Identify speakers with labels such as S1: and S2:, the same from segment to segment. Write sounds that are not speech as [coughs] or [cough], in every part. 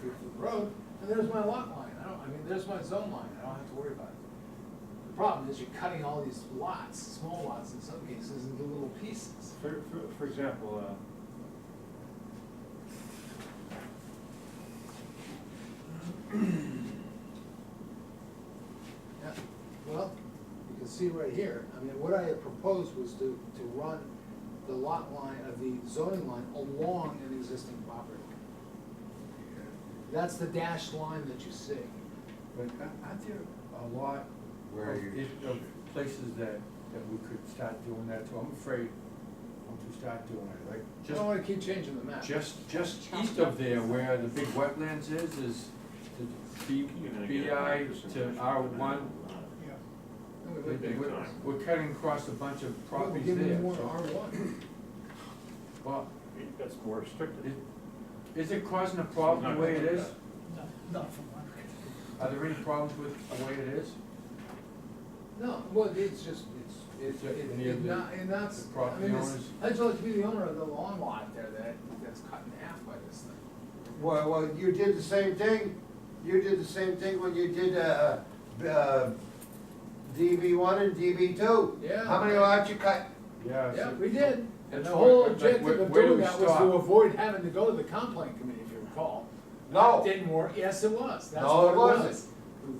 S1: feet from the road, and there's my lot line, I don't, I mean, there's my zone line, I don't have to worry about it. The problem is you're cutting all these lots, small lots in some cases, into little pieces.
S2: For, for, for example, uh,
S1: Yeah, well, you can see right here, I mean, what I had proposed was to, to run the lot line of the zoning line along an existing property. That's the dashed line that you see.
S3: But a- aren't there a lot
S4: Where
S3: of,
S4: you-
S3: is- of places that, that we could start doing that, so I'm afraid I'm to start doing it, like,
S1: I
S3: just,
S1: don't wanna keep changing the map.
S3: just, just east of there where the big wetlands is, is to B, BI to R one.
S2: uh,
S1: No, we
S3: We're
S1: wouldn't.
S2: Big time.
S3: we're cutting across a bunch of
S1: Well, we're
S3: properties
S1: giving you
S3: there,
S1: more
S3: so,
S1: R one.
S3: well,
S2: That's more restricted.
S3: is, is it causing a problem the way it is?
S5: Not from one.
S3: Are there any problems with the way it is?
S1: No, well, it's just, it's, it's,
S3: It's a-
S1: it-
S3: near
S1: it
S3: the-
S1: not, and that's,
S3: the
S1: I
S3: property
S1: mean, it's,
S3: owners.
S1: I'd just like to be the owner of the lawn lot there that, that's cut in half by this thing.
S4: Well, well, you did the same thing, you did the same thing when you did, uh, uh, DB one and DB two.
S1: Yeah.
S4: How many lots you cut?
S3: Yeah.
S1: Yeah,
S3: so-
S1: we did, and
S3: That's
S1: the
S3: why-
S1: whole
S3: like,
S1: objective
S3: where-
S1: of
S3: where do
S1: doing
S3: we
S1: that was to
S3: stop?
S1: avoid having to go to the complaint committee, if you recall.
S4: No.
S3: Oh.
S1: That Didn't work, yes, it was, that's
S4: No,
S1: what
S4: it
S1: it was.
S4: wasn't.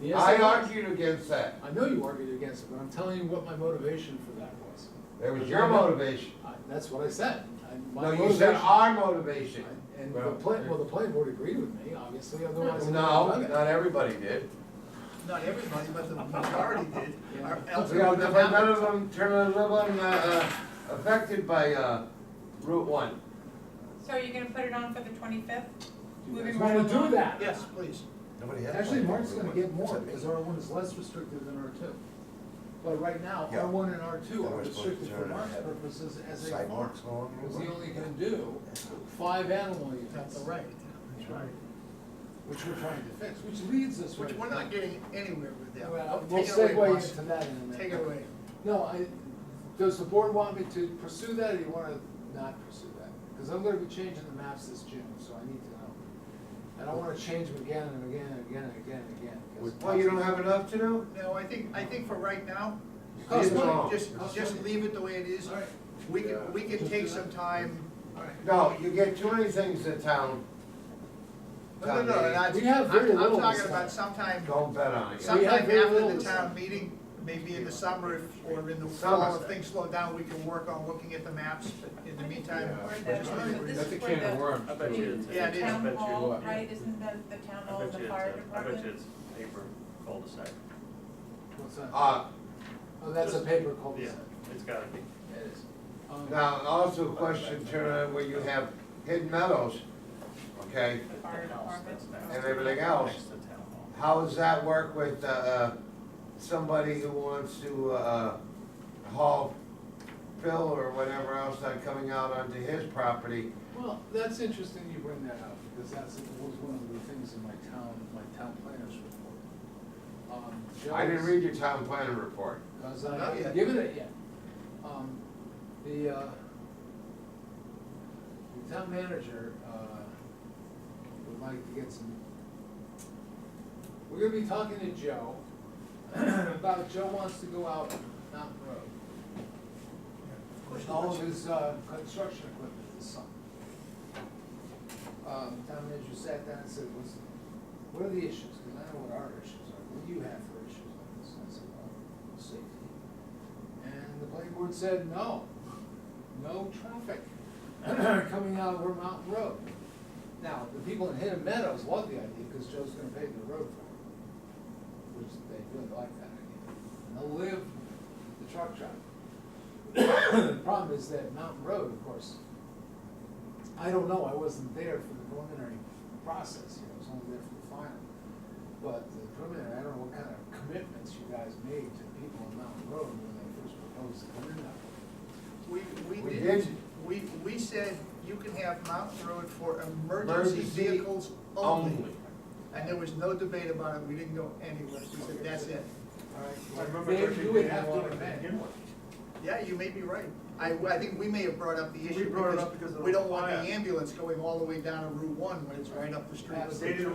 S1: Yes,
S4: I
S1: it was.
S4: argued against that.
S1: I know you argued against it, but I'm telling you what my motivation for that was,
S4: That was your motivation.
S1: I, that's what I said, I,
S4: No,
S1: my
S4: you said
S1: motivation.
S4: our motivation.
S1: And the
S3: Well,
S1: plan,
S3: it-
S1: well, the planning board agreed with me, obviously, otherwise. I
S4: No,
S1: wouldn't have done
S4: not everybody did.
S5: Not everybody, but the majority did, or else it
S4: Yeah,
S5: wouldn't
S4: but none
S5: have happened.
S4: of them, none of them, uh, uh, affected by, uh, Route one.
S6: So are you gonna put it on for the twenty-fifth?
S1: it. You guys
S6: Moving
S1: wanna
S6: right
S1: do
S6: along.
S1: that?
S5: Yes, please.
S4: Nobody
S1: Actually, Mark's gonna get more, because R one is less restrictive than R two. But right now,
S4: Yeah.
S1: R one and R two
S4: Then
S1: are
S4: we're supposed to
S1: restricted for
S4: turn
S1: Mark's
S4: ahead.
S1: purposes as a farm.
S4: along
S1: Because he only can do five animal
S5: That's
S1: units,
S5: right.
S1: which we're trying to fix, which leads us right.
S5: Which we're not getting anywhere with that.
S1: Well,
S5: Take
S1: we'll
S5: it away,
S1: segue
S5: Mark.
S1: into that in a minute.
S5: Take it away.
S1: No, I, does the board want me to pursue that, or do you wanna not pursue that? Because I'm gonna be changing the maps this June, so I need to know. I don't wanna change them again and again and again and again and again. 'cause-
S4: Well, you don't have enough to do?
S5: No, I think, I think for right now,
S1: Cost
S5: just-
S4: money.
S5: just, just leave it the way it is.
S1: All right.
S5: We can, we can
S1: Just
S5: take
S1: do that.
S5: some time.
S1: All right.
S4: No, you get too many things in town.
S5: No, no, no, and I-
S1: We have
S5: I'm-
S1: very little
S5: I'm talking
S1: this
S5: about
S1: time.
S5: sometime,
S4: Don't bet on it.
S1: Some-
S5: sometime
S1: very little
S5: after the
S1: this
S5: town
S1: time.
S5: meeting, maybe in the summer if- or in the
S4: Summer.
S5: fall, if things slow down, we can work on looking at the maps. But In the meantime,
S3: Yeah.
S6: Or the-
S5: That's fine.
S6: this
S3: That's a
S6: is for
S3: can of
S6: the-
S3: worms.
S2: I bet
S3: too.
S2: you it's-
S5: Yeah, it
S6: The
S5: is.
S6: town
S2: I bet you
S6: hall,
S3: what?
S6: right, isn't that the town
S2: I
S6: hall,
S2: bet
S6: the
S2: you it's,
S6: fire
S2: a- I
S6: department?
S2: bet you it's paper cul-de-sac.
S1: What's that?
S4: Uh,
S1: Oh, that's a paper cul-de-sac.
S2: Yeah, it's gotta be.
S1: It is. Um,
S4: Now, also a question, Turner, where you have Hidden Meadows, okay,
S6: The fire
S2: House,
S6: department?
S2: that's next.
S4: and everything else,
S2: Next to town hall.
S4: how does that work with, uh, somebody who wants to, uh, haul fill or whatever else that coming out onto his property?
S1: Well, that's interesting you bring that up, because that's, was one of the things in my town, my town planners report. Um,
S4: I didn't
S1: Joe's-
S4: read your town planning report.
S1: Because
S5: Not
S1: I haven't
S5: yet.
S1: given it yet. Um, the, uh, the town manager, uh, would like to get some, we're gonna be talking to Joe [clears throat] about Joe wants to go out Mountain Road. With all of his, uh, construction equipment this summer. Um, town manager sat down and said, what's, what are the issues? Cause I know what our issues are, what do you have for issues on this? And I said, well, safety. And the planning board said, no, no traffic [clears throat] coming out of our mountain road. Now, the people in Hidden Meadows love the idea, cause Joe's gonna pave the road for them which they really like that idea. And they'll live the truck traffic. The [coughs] problem is that Mountain Road, of course, I don't know, I wasn't there for the preliminary process here, I was only there for the final. But the preliminary, I don't know what kind of commitments you guys made to the people on Mountain Road when they first proposed to come in that way.
S5: We,
S4: We
S5: we
S4: did.
S5: did, we, we said you can have Mountain Road for emergency
S4: Emergency
S5: vehicles only.
S4: Only.
S5: And there was no debate about it, we didn't go anywhere, we said, that's it.
S1: All right,
S2: I remember
S1: They-
S2: Richard
S1: you would
S2: didn't
S1: have to
S2: want it to
S1: amend.
S2: begin with.
S5: Yeah, you may be right, I, I think we may have brought up the
S2: We
S5: issue.
S2: brought it up because of the
S5: We don't want the
S2: fire.
S5: ambulance going all the way down to Route One when it's right up the street.
S1: Absolutely.
S2: They didn't want